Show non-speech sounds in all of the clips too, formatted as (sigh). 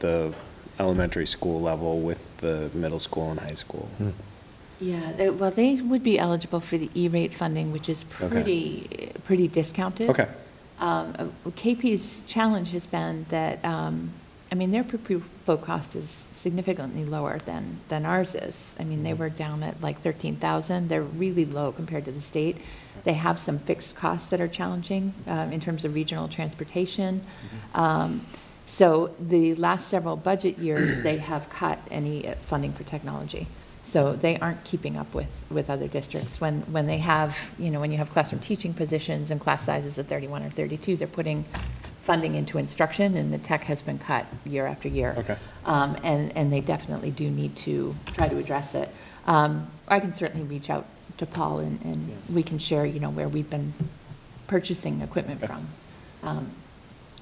the elementary school level with the middle school and high school. Yeah, they- well, they would be eligible for the E-rate funding, which is pretty, pretty discounted. Okay. Um, uh, KP's challenge has been that, um, I mean, their per pupil cost is significantly lower than, than ours is. I mean, they were down at like 13,000, they're really low compared to the state. They have some fixed costs that are challenging um, in terms of regional transportation. Um, So the last several budget years, they have cut any uh, funding for technology. So they aren't keeping up with, with other districts. When, when they have, you know, when you have classroom teaching positions and class sizes of 31 or 32, they're putting funding into instruction, and the tech has been cut year after year. Okay. Um, And, and they definitely do need to try to address it. Um, I can certainly reach out to Paul, and, and we can share, you know, where we've been purchasing equipment from. Um,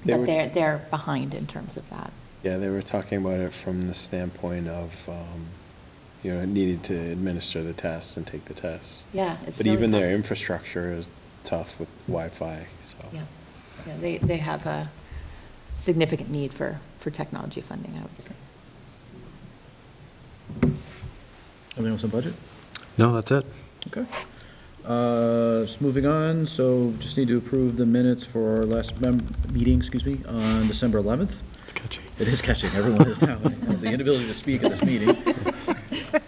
They But were- they're, they're behind in terms of that. Yeah, they were talking about it from the standpoint of, um, you know, needed to administer the tests and take the tests. Yeah, it's But really even their tough. infrastructure is tough with Wi-Fi, so. Yeah, yeah, they, they have a significant need for, for technology funding, I would say. Everything else on budget? No, that's it. Okay. Uh, Just moving on, so just need to approve the minutes for our last mem- meeting, excuse me, on December 11th. It's catchy. It is catching, everyone is now, has the inability to speak at this meeting.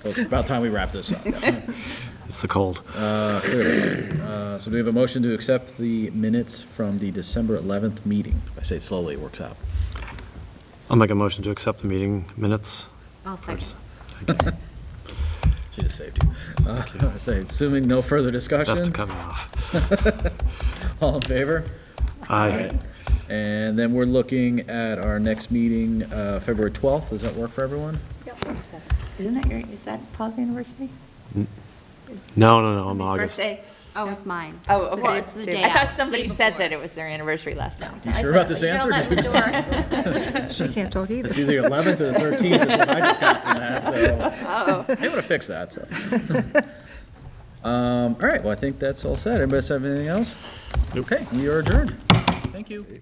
So it's about time we wrap this up. It's the cold. Uh, clearly. Uh, So do we have a motion to accept the minutes from the December 11th meeting? If I say it slowly, it works out. I'll make a motion to accept the meeting minutes. I'll First. She just saved you. Uh, (laughs) I Say, assuming no further Best to discussion, cut me off. (laughs) all in favor? Aye. And then we're looking at our next meeting, uh, February 12th. Does that work for everyone? Isn't that your, is that Paul's anniversary? No, no, no, I'm August. Oh, it's mine. Oh, It's the well, day- it's it's the the day I thought after, somebody day said before. that it was their anniversary last night. You sure about this You're answer? not in the door. She can't talk either. It's either 11th or the 13th is what I just got from that, so. They want to fix that, so. Um, All right, well, I think that's all said. Anybody else have anything else? Okay, we are adjourned. Thank you.